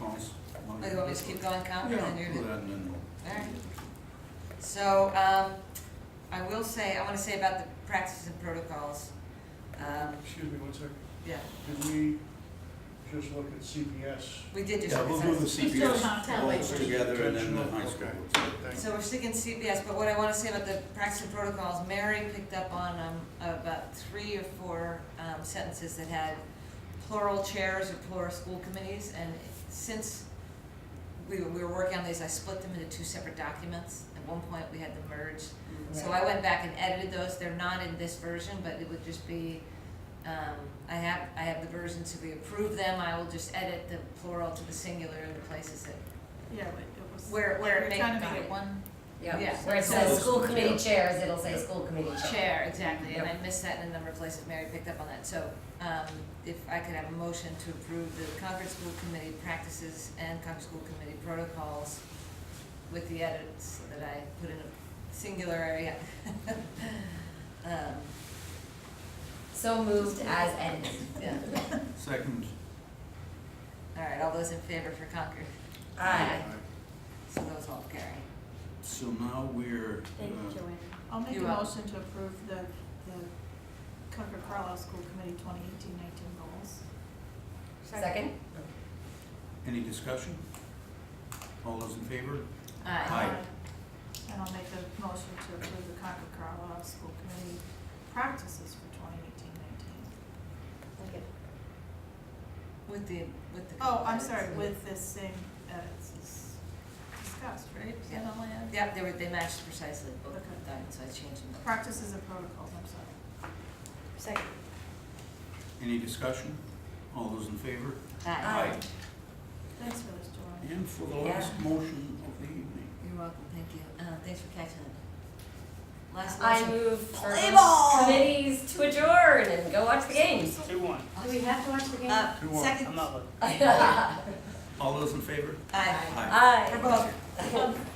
Or do you want me to keep going, Count? Yeah, And you're- do that and then we'll- Alright. So, um, I will say, I wanna say about the practices and protocols, um, Excuse me one second. yeah, Did we just look at CPS? we did just. Yeah, we'll do the He's still not CPS telling. goals together and then the high school. Okay. goals. Thank So we're sticking CPS, but what I wanna say about the practice and protocols, Mary picked up on, um, about three or four, um, sentences that had plural chairs or plural school committees, and since we, were- we were working on these, I split them into two separate documents. At one point, we had them merged, So I went back and edited those, they're not in this version, but it would just be, um, I have, I have the versions, if we approve them, I will just edit the plural to the singular in the places that, Yeah, but it was. Where- where it We're may- trying to got make it. it one. Yeah. Yeah, where it says school committee chairs, it'll say Yeah. school committee chair. chair, exactly, and I missed that in a number of places, Mary picked up on that, so, um, if I could have a motion to approve the Concord School Committee practices and Concord School Committee protocols with the edits that I put in a singular area. Um, So moved as edited. yeah, Second, all right, all those in favor for Concord? Aye. you. So those all carry. so now we're, Thank you, uh, Joanne. I'll make a You are. motion to approve the, the Concord Carlisle School Committee 2018-19 goals. Second? any discussion? All those in favor? Uh, Aye. Uh, And I'll make a motion to approve the Concord Carlisle School Committee practices for 2018-19. With the, with the. Oh, I'm sorry, with this same edits as discussed, right? Is that all I had? Yep, they were, they matched precisely, both Okay. of them, so I changed them. Practices and protocols, I'm sorry. Second. Any discussion? All those in favor? Aye. Aye. Thanks for this, Joanne. And for the last motion of the evening. You're welcome, thank you. Uh, thanks for catching it. Last I motion. move for Play those ball! committees to adjourn and go watch the games. Two one. Do we have to watch the game? Uh, Who won? second. I'm not looking. Aye. All those in favor? Aye. Aye. For both.